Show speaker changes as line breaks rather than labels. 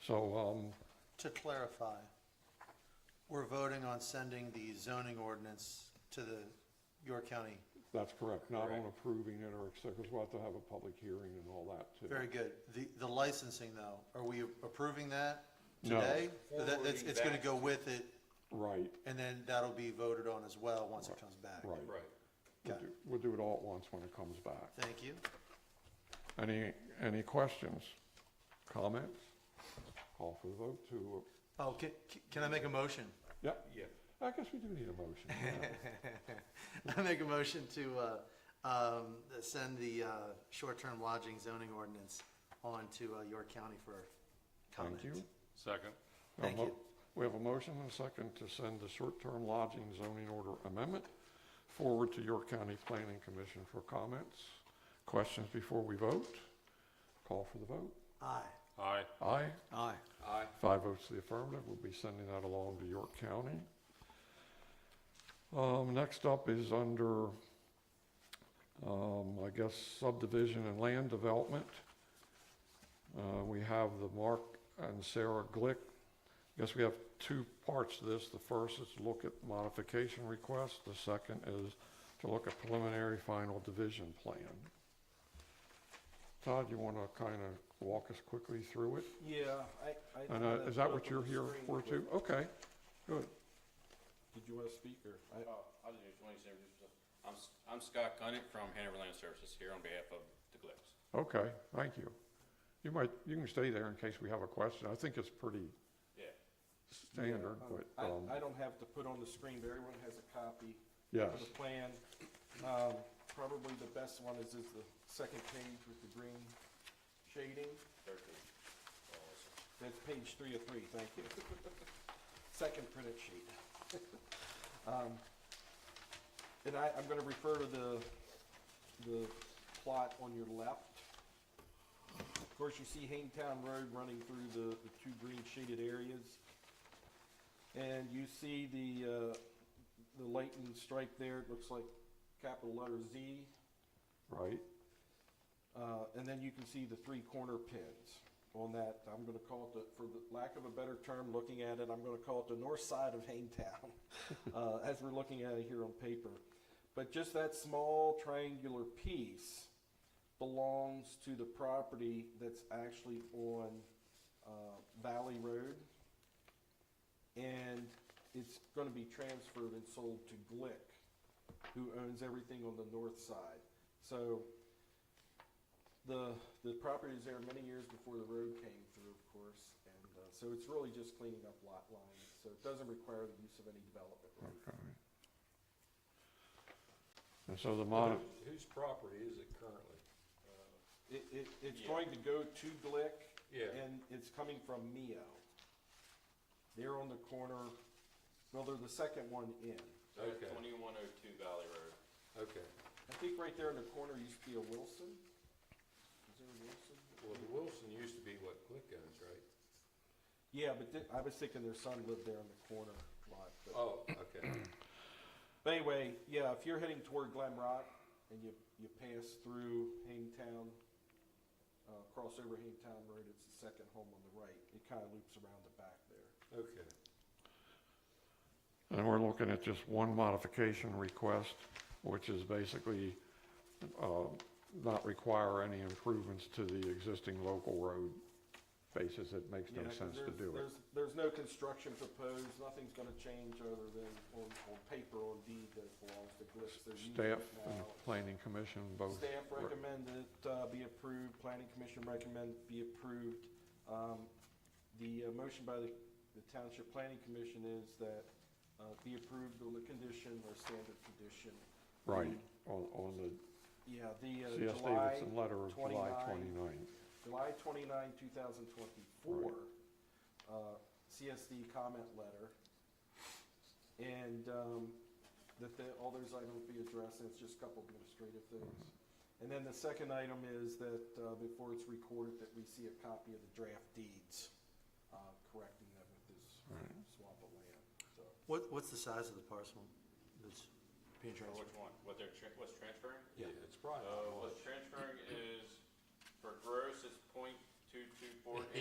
So, um,
To clarify, we're voting on sending the zoning ordinance to the York County.
that's correct, not on
Correct.
approving it or, because we'll have to have a public hearing and all that too.
Very good. The, the licensing though, are we approving that
No.
today? That, that's, it's gonna go with it
Right,
and then that'll be voted on as well once it comes back.
right.
Right.
We'll
Got it.
do- We'll do it all at once when it comes back.
Thank you.
Any, any questions, comments? Call for the vote to, uh,
Oh, can, can I make a motion?
yeah,
Yeah.
I guess we do need a motion. yeah.
I make a motion to, uh, um, send the, uh, short-term lodging zoning ordinance on to, uh, York County for comment.
Thank you.
Second.
A
Thank
mo-
you.
We have a motion and a second to send the short-term lodging zoning order amendment forward to York County Planning Commission for comments. Questions before we vote? Call for the vote.
Aye.
Aye.
Aye.
Aye.
Aye.
Five votes to the affirmative. We'll be sending that along to York County. Um, next up is under, um, I guess subdivision and land development. Uh, we have the Mark and Sarah Glick. I guess we have two parts to this. The first is to look at modification requests. The second is to look at preliminary final division plan. Todd, you want to kind of walk us quickly through it?
Yeah, I, I.
And
thought
uh,
I
is that
put
what
up
you're
on the
here
screen,
for
but-
too? Okay, good.
Did you wanna speak, or? I-
Oh, I'll do twenty services. uh, I'm, S- I'm Scott Gunnett from Hanover Land Services here on behalf of the Glicks.
Okay, thank you. You might, you can stay there in case we have a question. I think it's pretty
Yeah.
standard,
um,
but, um,
I, I don't have to put on the screen, but everyone has a copy.
yes,
Of the plan. Um, probably the best one is, is the second page with the green shading.
Thirteen. Oh, let's see.
That's page three of three, thank you. Second printed sheet. Um, And I, I'm gonna refer to the, the plot on your left. Of course, you see Hangtown Road running through the, the two green shaded areas. And you see the, uh, the lightning strike there, it looks like capital letter Z.
right,
Uh, and then you can see the three corner pins on that, I'm gonna call it the, for the lack of a better term, looking at it, I'm gonna call it the north side of Hangtown, uh, as we're looking at it here on paper. But just that small triangular piece belongs to the property that's actually on, uh, Valley Road. And it's gonna be transferred and sold to Glick, who owns everything on the north side. So, the, the property was there many years before the road came through, of course, and, uh, so it's really just cleaning up lot lines, so it doesn't require the use of any development. right?
okay. And so the mod,
Whose property is it currently? Uh,
It, it, it's
Yeah.
going to go to Glick.
Yeah.
And it's coming from Mio. They're on the corner, well, they're the second one in.
So
Okay.
twenty-one oh two Valley Road.
Okay,
I think right there in the corner used to be a Wilson. Is there a Wilson?
well, the Wilson used to be what Glick owns, right?
Yeah, but thi- I was thinking their son lived there in the corner lot, but.
Oh, okay,
But anyway, yeah, if you're heading toward Glen Rock and you, you pass through Hangtown, uh, cross over Hangtown Road, it's the second home on the right. It kind of loops around the back there.
okay.
and we're looking at just one modification request, which is basically, uh, not require any improvements to the existing local road basis. It makes no
Yeah, 'cause
sense to
there's-
do it.
There's, there's no construction proposed, nothing's gonna change other than on, on paper, on deed that it belongs to Glitz. They're using
Staff
it
and
now.
planning commission both.
uh, Staff
re-
recommend it uh, be approved, planning commission recommend be approved. Um, The uh, motion by the the township planning commission is that uh, be approved on the condition or standard condition.
Right, on, on the
Yeah, the uh,
C.S.
July,
Davidson letter of July 29th.
29. July twenty-nine, two thousand twenty-four, uh, CSD comment letter. And um, that the, all those items be addressed, and it's just a couple administrative things. And then the second item is that uh, before it's recorded, that we see a copy of the draft deeds, uh, correcting them with this swap of land, so.
What, what's the size of the parcel that's being
Or
transferred?
which one? What they're, tran- what's transferring?
Yeah.
It's
Oh,
probably.
Uh, what's transferring is, for gross, it's point two two four eight